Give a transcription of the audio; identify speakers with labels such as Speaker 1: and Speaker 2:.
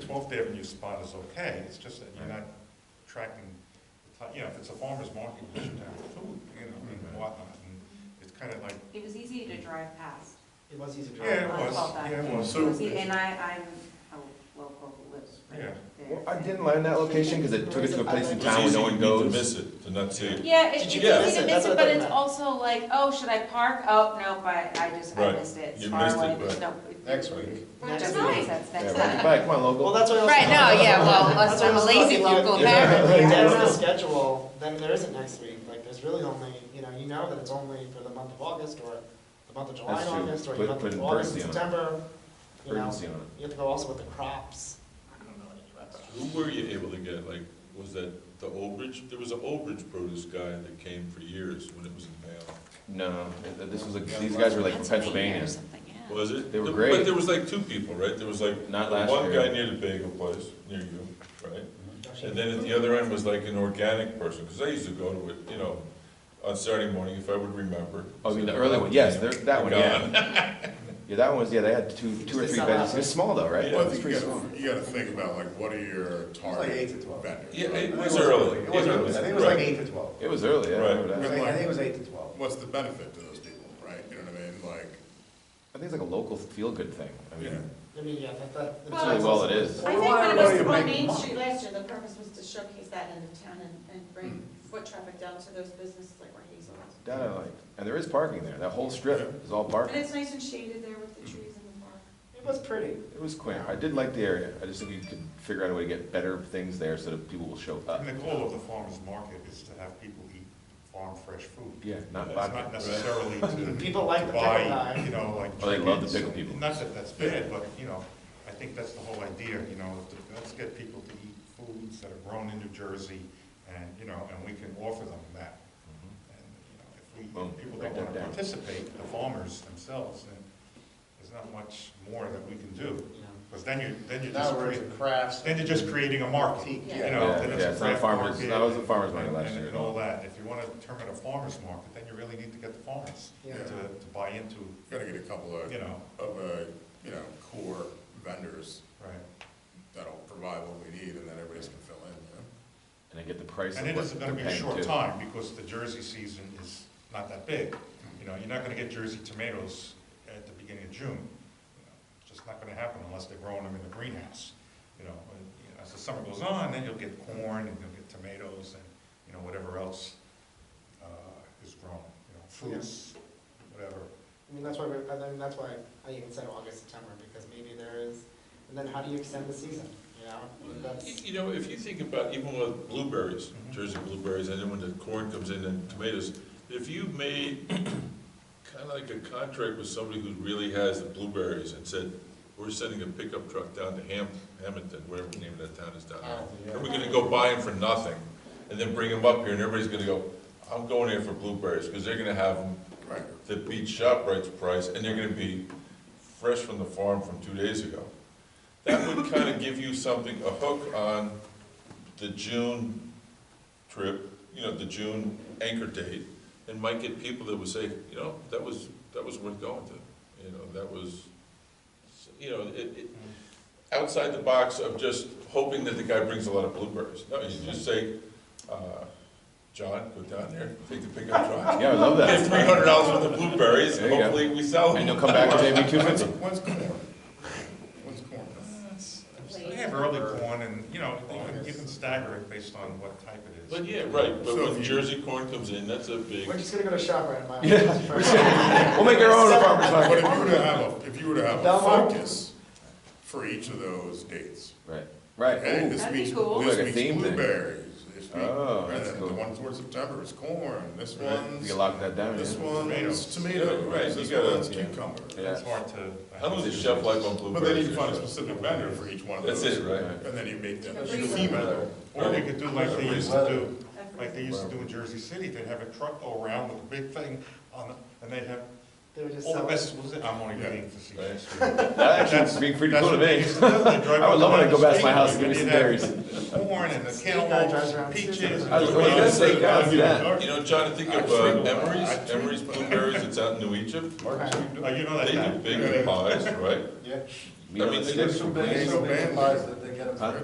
Speaker 1: Twelfth Avenue spot is okay, it's just that you're
Speaker 2: Right.
Speaker 1: not tracking, the ti- you know, if it's a farmer's market, you should have food, you know, and
Speaker 2: Right.
Speaker 1: whatnot, and it's kind of like,
Speaker 3: It was easy to drive past.
Speaker 4: It was easy to drive.
Speaker 1: yeah, it
Speaker 3: I
Speaker 1: was,
Speaker 3: felt that.
Speaker 1: yeah, it was.
Speaker 3: It was e- And I, I'm a local who lives right
Speaker 1: Yeah.
Speaker 3: there.
Speaker 2: Well, I didn't learn that location because it took us to a place in
Speaker 4: It's
Speaker 2: town where no one
Speaker 5: It's
Speaker 2: goes.
Speaker 5: easy for me to miss it, to not see it.
Speaker 3: Yeah, it-
Speaker 4: Did
Speaker 3: it's
Speaker 4: you
Speaker 3: easy
Speaker 5: miss
Speaker 3: to miss
Speaker 4: it? That's
Speaker 3: it,
Speaker 4: what
Speaker 3: but
Speaker 4: I
Speaker 3: it's
Speaker 4: meant.
Speaker 3: also like, oh, should I park? Oh, no, but I just, I
Speaker 5: Right.
Speaker 3: missed it. It's
Speaker 5: You
Speaker 3: far
Speaker 5: missed it,
Speaker 3: away, there's
Speaker 5: but-
Speaker 3: no.
Speaker 5: Next week.
Speaker 3: Which is
Speaker 4: Next
Speaker 3: nice,
Speaker 4: week.
Speaker 3: that's,
Speaker 2: Yeah,
Speaker 3: that's
Speaker 2: run it
Speaker 3: that.
Speaker 2: back, come on, local.
Speaker 4: Well, that's what I was.
Speaker 3: Right, no, yeah, well,
Speaker 4: That's
Speaker 3: us,
Speaker 4: what I
Speaker 3: I'm a
Speaker 4: was
Speaker 3: lazy
Speaker 4: talking about.
Speaker 3: local
Speaker 2: Yeah.
Speaker 3: parent.
Speaker 4: If
Speaker 3: yeah.
Speaker 4: there's a schedule, then there isn't next week, like, there's really only, you know, you know that it's only for the month of August, or the month of July
Speaker 2: That's
Speaker 4: and
Speaker 2: true.
Speaker 4: August, or
Speaker 2: Put-
Speaker 4: the month
Speaker 2: put
Speaker 4: of
Speaker 2: an
Speaker 4: August and
Speaker 2: urgency on it.
Speaker 4: September, you know,
Speaker 2: Urgency on it.
Speaker 4: you have to go also with the crops. I don't know anything about crops.
Speaker 5: Who were you able to get, like, was that the Old Bridge, there was an Old Bridge produce guy that came for years when it was in Bayonne,
Speaker 2: No, th- th- this was, a- these guys were like from Pennsylvania.
Speaker 3: Or something, yeah.
Speaker 5: was it?
Speaker 2: They were
Speaker 5: But-
Speaker 2: great.
Speaker 5: But there was like two people, right, there was like,
Speaker 2: Not last
Speaker 5: one
Speaker 2: year.
Speaker 5: guy near the bagel place, near you, right? And then at the other end was like an organic person, because I used to go to it, you know, on Saturday morning, if I would remember.
Speaker 2: Oh, I mean, the early one, yes, there- that one,
Speaker 5: Gone.
Speaker 2: yeah. Yeah, that one was, yeah, they had two, two or
Speaker 4: Because they
Speaker 2: three
Speaker 4: sell
Speaker 2: vendors.
Speaker 4: out.
Speaker 2: It was small though, right?
Speaker 5: Yeah.
Speaker 6: Well, I
Speaker 2: It was
Speaker 6: think you
Speaker 2: pretty small.
Speaker 6: gotta, you gotta think about like, what are your target vendors?
Speaker 5: Yeah,
Speaker 6: right?
Speaker 5: it was early.
Speaker 7: It was early, I think it was like
Speaker 5: Right.
Speaker 7: eight to twelve.
Speaker 2: It was early, yeah, I
Speaker 5: Right.
Speaker 2: remember
Speaker 7: I
Speaker 2: that.
Speaker 7: think I think it was eight to twelve.
Speaker 6: What's the benefit to those people, right? You know what I mean, like,
Speaker 2: I think it's like a local feel-good thing. I
Speaker 6: yeah.
Speaker 2: mean,
Speaker 4: I mean, yeah, that, that.
Speaker 2: That's really well it is.
Speaker 8: I think when it was on Main Street last year, the purpose was to showcase that in the town and, and bring foot traffic down to those businesses like where Hazel is.
Speaker 2: That I liked. And there is parking there. That whole strip is all
Speaker 8: And
Speaker 2: parking.
Speaker 8: it's nice and shaded there with the trees in the park.
Speaker 4: It was pretty.
Speaker 2: It was quaint. I did like the area. I just think you could figure out a way to get better things there so that people will show up.
Speaker 1: And the goal of the farmer's market is to have people eat farm fresh food.
Speaker 2: Yeah, not
Speaker 1: It's
Speaker 2: vodka.
Speaker 1: not necessarily to.
Speaker 4: People like the
Speaker 1: to buy,
Speaker 4: pickle guy.
Speaker 1: You know, like.
Speaker 2: Oh, they love the
Speaker 1: chickens.
Speaker 2: pickle people.
Speaker 1: Not that that's bad, but, you know, I think that's the whole idea, you know, to- let's get people to eat foods that are grown in New Jersey and, you know, and we can offer them that. And, you know,
Speaker 2: Mm-hmm. Boom.
Speaker 1: if we, if people don't
Speaker 2: Write that
Speaker 1: want to
Speaker 2: down.
Speaker 1: participate, the farmers themselves, then there's not much more that we can do.
Speaker 4: Yeah.
Speaker 1: Because then you, then you're just
Speaker 7: Now we're
Speaker 1: creating,
Speaker 7: into crafts.
Speaker 1: then you're just creating a market, you
Speaker 7: Yeah.
Speaker 1: know,
Speaker 2: Yeah,
Speaker 1: then
Speaker 2: yeah,
Speaker 1: it's a
Speaker 2: it's not a
Speaker 1: craft
Speaker 2: farmer's-
Speaker 1: market.
Speaker 2: that was a farmer's market
Speaker 1: and-
Speaker 2: last
Speaker 1: and-
Speaker 2: year.
Speaker 1: And all that, if you want to term it a farmer's market, then you really need to get the farmers to,
Speaker 4: Yeah.
Speaker 1: to buy into,
Speaker 6: Gotta get a couple of,
Speaker 1: you know,
Speaker 6: of, uh, you know, core vendors
Speaker 1: right.
Speaker 6: that'll provide what we need and then everybody else can fill in, you know?
Speaker 2: And I get the price of
Speaker 1: And it
Speaker 2: what
Speaker 1: is going to be
Speaker 2: they're
Speaker 1: a
Speaker 2: paying,
Speaker 1: short
Speaker 2: too.
Speaker 1: time, because the Jersey season is not that big. You know, you're not going to get Jersey tomatoes at the beginning of June. You know, It's just not going to happen unless they're growing them in the greenhouse, you know. But, you know, As the summer goes on, then you'll get corn, and you'll get tomatoes, and, you know, whatever else uh, is grown, you know, fruits, whatever.
Speaker 4: I mean, that's why, we're- I mean, that's why I even said August, September, because maybe there is, and then how do you extend the season, you know?
Speaker 5: You
Speaker 4: That's,
Speaker 5: you know, if you think about even with blueberries, Jersey blueberries, and then when the corn comes in and tomatoes, if you made kind of like a contract with somebody who really has the blueberries and said, we're sending a pickup truck down to Ham, Hamilton, whatever the name of that town is down there. And we're gonna go buy them for nothing, and then bring them up here, and everybody's gonna go, I'm going here for blueberries, because they're gonna have them
Speaker 6: Right.
Speaker 5: the beat shop rights price, and they're gonna be fresh from the farm from two days ago. That would kind of give you something, a hook on the June trip, you know, the June anchor date, and might get people that would say, you know, that was, that was worth going to, you know, that was, you know, it, it, outside the box of just hoping that the guy brings a lot of blueberries. No, you just say, uh, John, go down there, take the pickup truck,
Speaker 2: Yeah, I love
Speaker 5: Get
Speaker 2: that.
Speaker 5: three hundred dollars worth of blueberries,
Speaker 2: There you go.
Speaker 5: hopefully we sell
Speaker 2: And
Speaker 5: them.
Speaker 2: they'll come back and pay me two
Speaker 6: When's,
Speaker 2: fifty.
Speaker 6: when's corn? When's corn?
Speaker 1: They have early corn, and, you know, you can- you can stagger it based on what type it is.
Speaker 5: But yeah, right, but
Speaker 6: So
Speaker 5: when
Speaker 6: if you-
Speaker 5: Jersey corn comes in, that's a big,
Speaker 4: we're just gonna go to ShopRite and buy.
Speaker 2: Yeah, we're just gonna- We'll make our own a farmer's
Speaker 6: But
Speaker 2: market.
Speaker 6: if you were to have, a if you were to have a
Speaker 4: Belmont?
Speaker 6: focus for each of those dates,
Speaker 2: Right,
Speaker 6: Okay,
Speaker 2: right. Ooh.
Speaker 6: this
Speaker 3: That'd be
Speaker 6: week's,
Speaker 3: cool.
Speaker 6: this
Speaker 2: Like a
Speaker 6: week's
Speaker 2: theme thing.
Speaker 6: blueberries, this week,
Speaker 2: Oh,
Speaker 6: and
Speaker 2: that's
Speaker 6: then the
Speaker 2: cool.
Speaker 6: one towards September is corn, this
Speaker 5: Right.
Speaker 2: We can
Speaker 6: one's,
Speaker 2: lock that down,
Speaker 6: this
Speaker 2: yeah.
Speaker 6: one's
Speaker 1: Tomatoes.
Speaker 6: tomato,
Speaker 5: Yeah, right, you
Speaker 6: this
Speaker 5: gotta-
Speaker 6: one's
Speaker 5: yeah.
Speaker 6: cucumber.
Speaker 2: Yeah.
Speaker 1: It's hard to.
Speaker 5: how long does a chef life on
Speaker 6: But they need
Speaker 5: blueberries?
Speaker 6: to find a specific vendor for each one of
Speaker 5: That's
Speaker 6: those.
Speaker 5: it, right?
Speaker 6: And then you make them.
Speaker 8: Every
Speaker 6: theme
Speaker 8: week.
Speaker 6: it.
Speaker 1: Or we could do like they used to do,
Speaker 8: Every-
Speaker 1: like they used to do in Jersey City, they'd have a truck go around with a big thing on, it, and they'd have
Speaker 4: They were just
Speaker 1: all the
Speaker 4: selling.
Speaker 1: vegetables, in- I'm only
Speaker 6: Yeah.
Speaker 1: being facetious.
Speaker 2: That
Speaker 1: That's-
Speaker 2: actually would be pretty
Speaker 1: that's
Speaker 2: cool to
Speaker 1: what they
Speaker 2: me.
Speaker 1: used to do. They'd drive
Speaker 2: I would love
Speaker 1: up
Speaker 2: when I go past
Speaker 1: the
Speaker 2: my house,
Speaker 1: street,
Speaker 2: give me some
Speaker 1: they'd have
Speaker 2: berries.
Speaker 1: Corn and the
Speaker 4: guy drives around.
Speaker 1: cantaloupe, peaches.
Speaker 2: I was- oh, you guys say guys, yeah.
Speaker 5: You know, John, I think of uh, Emery's, Emery's blueberries, it's out in New Egypt,
Speaker 4: Right.
Speaker 1: Oh, you know that
Speaker 5: they do
Speaker 1: guy.
Speaker 5: big pies, right?
Speaker 7: Yeah.
Speaker 2: meat on
Speaker 5: mean,
Speaker 2: a
Speaker 5: they
Speaker 2: stick
Speaker 5: do
Speaker 2: from
Speaker 1: bad-
Speaker 2: Queens.
Speaker 1: so bad.
Speaker 6: Supplies that they get them
Speaker 2: Huh?